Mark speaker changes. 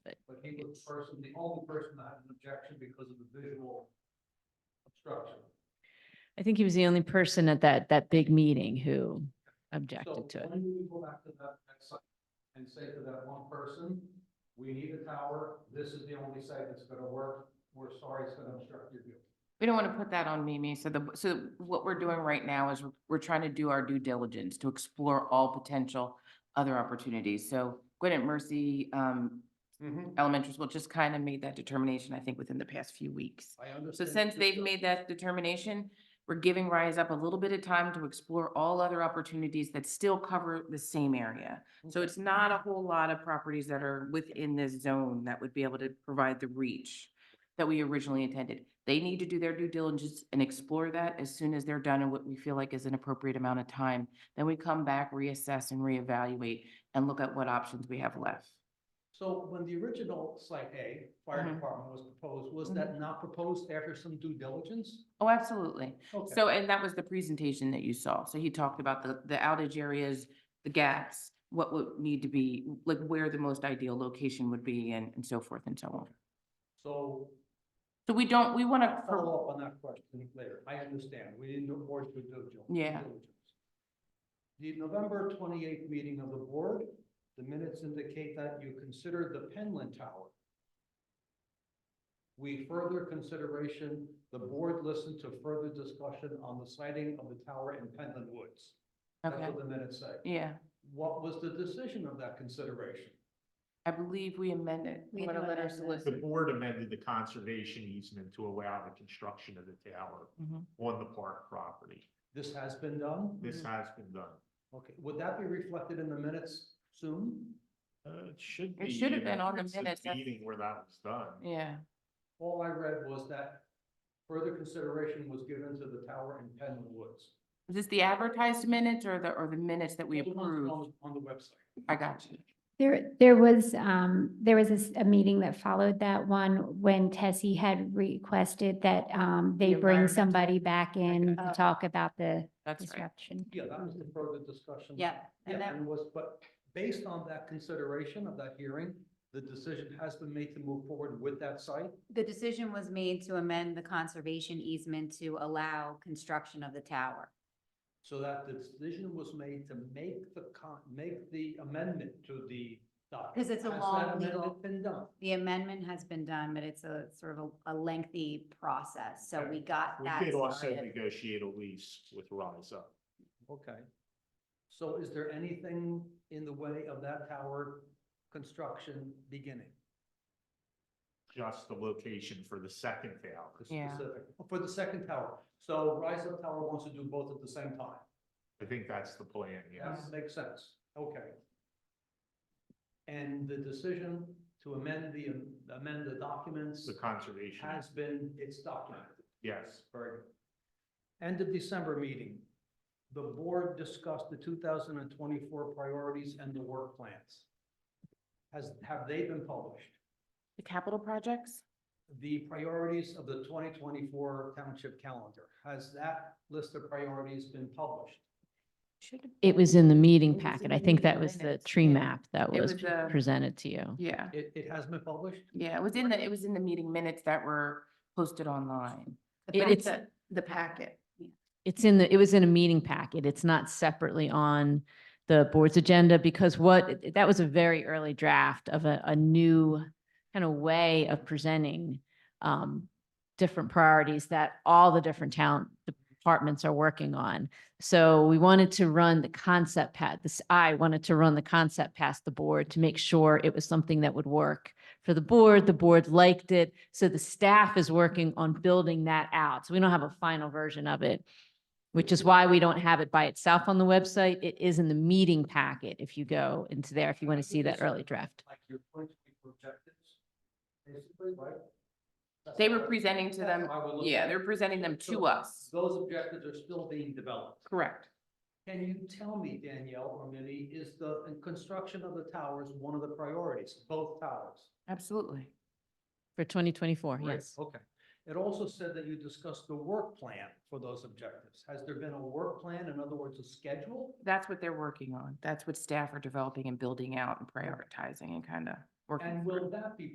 Speaker 1: the person, the only person that had an objection because of the visual obstruction.
Speaker 2: I think he was the only person at that, that big meeting who
Speaker 1: So
Speaker 2: objected to it.
Speaker 1: when we go back to that next site and say to that one person, we need a tower, this is the only site that's gonna work, we're sorry it's gonna obstruct your view.
Speaker 3: We don't want to put that on Mimi. So the, so what we're doing right now is we're- we're trying to do our due diligence to explore all potential other opportunities. So Gwinnett Mercy um, Elementary School just kind of made that determination, I think, within the past few weeks.
Speaker 1: I
Speaker 3: So
Speaker 1: understand.
Speaker 3: since they've made that determination, we're giving Rise Up a little bit of time to explore all other opportunities that still cover the same area. So it's not a whole lot of properties that are within this zone that would be able to provide the reach that we originally intended. They need to do their due diligence and explore that as soon as they're done in what we feel like is an appropriate amount of time. Then we come back, reassess and reevaluate and look at what options we have left.
Speaker 1: So when the original site A,
Speaker 3: Mhm.
Speaker 1: fire department was proposed,
Speaker 3: Mm-hmm.
Speaker 1: was that not proposed after some due diligence?
Speaker 3: Oh, absolutely.
Speaker 1: Okay.
Speaker 3: So, and that was the presentation that you saw. So he talked about the, the outage areas, the gaps, what would need to be, like where the most ideal location would be and, and so forth and so on.
Speaker 1: So
Speaker 3: So we don't, we want to,
Speaker 1: follow up on that question later. I understand. We didn't do more due diligence.
Speaker 3: Yeah.
Speaker 1: diligence. The November twenty-eighth meeting of the board, the minutes indicate that you considered the Penland Tower. We further consideration, the board listened to further discussion on the sighting of the tower in Penland Woods. That's
Speaker 3: okay,
Speaker 1: what the minutes say.
Speaker 3: yeah.
Speaker 1: What was the decision of that consideration?
Speaker 3: I believe we amended,
Speaker 2: We
Speaker 3: I'm
Speaker 2: do
Speaker 3: gonna let her
Speaker 2: amend that.
Speaker 4: The
Speaker 3: solicit.
Speaker 4: board amended the conservation easement to allow the construction of the tower
Speaker 3: Mhm.
Speaker 4: on the park property.
Speaker 1: This has been done?
Speaker 4: This
Speaker 3: Mm-hmm.
Speaker 4: has been done.
Speaker 1: Okay, would that be reflected in the minutes soon?
Speaker 4: Uh, it should
Speaker 3: It
Speaker 4: be.
Speaker 3: should have
Speaker 4: uh,
Speaker 3: been on the
Speaker 4: it's this
Speaker 3: minutes, that's-
Speaker 4: Meeting where that was done.
Speaker 3: Yeah,
Speaker 1: All I read was that further consideration was given to the tower in Penland Woods.
Speaker 3: is this the advertised minutes or the, or the minutes that we
Speaker 1: All the ones
Speaker 3: approved?
Speaker 1: on- On the website.
Speaker 3: I got you.
Speaker 5: There, there was, um, there was a s- a, meeting that followed that one when Tessie had requested that, um, they
Speaker 3: The
Speaker 5: bring
Speaker 3: environmental-
Speaker 5: somebody back in
Speaker 3: Oh.
Speaker 5: to talk about the
Speaker 3: That's right.
Speaker 5: disruption.
Speaker 1: Yeah, that was the further discussion.
Speaker 3: And
Speaker 1: Yeah,
Speaker 3: that,
Speaker 1: and was, but based on that consideration of that hearing, the decision has been made to move forward with that site.
Speaker 6: The decision was made to amend the conservation easement to allow construction of the tower.
Speaker 1: So that the decision was made to make the con, make the amendment to the document.
Speaker 6: 'Cause it's a
Speaker 1: Has that
Speaker 6: long
Speaker 1: amendment
Speaker 6: legal-
Speaker 1: Been done.
Speaker 6: The amendment has been done, but it's a sort of a a lengthy process, so we got that
Speaker 4: We did also
Speaker 6: started.
Speaker 4: negotiate a lease with Rise Up.
Speaker 1: Okay. So is there anything in the way of that tower construction beginning?
Speaker 4: just the location for the second
Speaker 1: the
Speaker 4: tower.
Speaker 3: Yeah.
Speaker 1: specific, for the second tower. So Rise Up Tower wants to do both at the same time.
Speaker 4: I think that's the plan,
Speaker 1: That
Speaker 3: Mm-hmm.
Speaker 4: yes.
Speaker 1: makes sense. Okay. And the decision to amend the, amend the documents
Speaker 4: The conservation,
Speaker 1: has been, it's documented.
Speaker 4: yes.
Speaker 1: Very good. End of December meeting. The board discussed the two thousand and twenty-four priorities and the work plans. Has, have they been published?
Speaker 3: the capital projects?
Speaker 1: the priorities of the twenty twenty-four township calendar. Has that list of priorities been published?
Speaker 3: Should have.
Speaker 2: It was in the
Speaker 3: It
Speaker 2: meeting
Speaker 3: was
Speaker 2: packet.
Speaker 3: in
Speaker 2: I
Speaker 3: the
Speaker 2: think that
Speaker 3: meeting
Speaker 2: was the
Speaker 3: minutes,
Speaker 2: tree
Speaker 3: yeah.
Speaker 2: map that
Speaker 3: It
Speaker 2: was
Speaker 3: was, uh,
Speaker 2: presented to you.
Speaker 3: Yeah,
Speaker 1: It, it has been published?
Speaker 3: yeah, it was in the, it was in the meeting minutes that were posted online.
Speaker 6: The
Speaker 2: It-
Speaker 6: fact
Speaker 2: it's-
Speaker 6: that-
Speaker 3: The packet.
Speaker 2: It's in the, it was in a meeting packet. It's not separately on the board's agenda because what, that was a very early draft of a, a new kind of way of presenting um, different priorities that all the different town departments are working on. So we wanted to run the concept pat, this, I wanted to run the concept past the board to make sure it was something that would work for the board. The board liked it. So the staff is working on building that out. So we don't have a final version of it, which is why we don't have it by itself on the website. It is in the meeting packet if you go into there, if you want to see that early draft.
Speaker 1: Like your points, your objectives, basically, right? That's
Speaker 3: They were
Speaker 1: what I-
Speaker 3: presenting to
Speaker 1: that's
Speaker 3: them,
Speaker 1: how I would look at
Speaker 3: yeah,
Speaker 1: it.
Speaker 3: they're presenting them
Speaker 1: So
Speaker 3: to us.
Speaker 1: Those objectives are still being developed.
Speaker 3: Correct.
Speaker 1: Can you tell me, Danielle or Minnie, is the and construction of the towers one of the priorities, both towers?
Speaker 3: Absolutely.
Speaker 2: For twenty twenty-four,
Speaker 1: Great,
Speaker 2: yes.
Speaker 1: Okay. It also said that you discussed the work plan for those objectives. Has there been a work plan, in other words, a schedule?
Speaker 3: That's what they're working on. That's what staff are developing and building out and prioritizing and kind of working.
Speaker 1: And
Speaker 3: through.
Speaker 1: will that be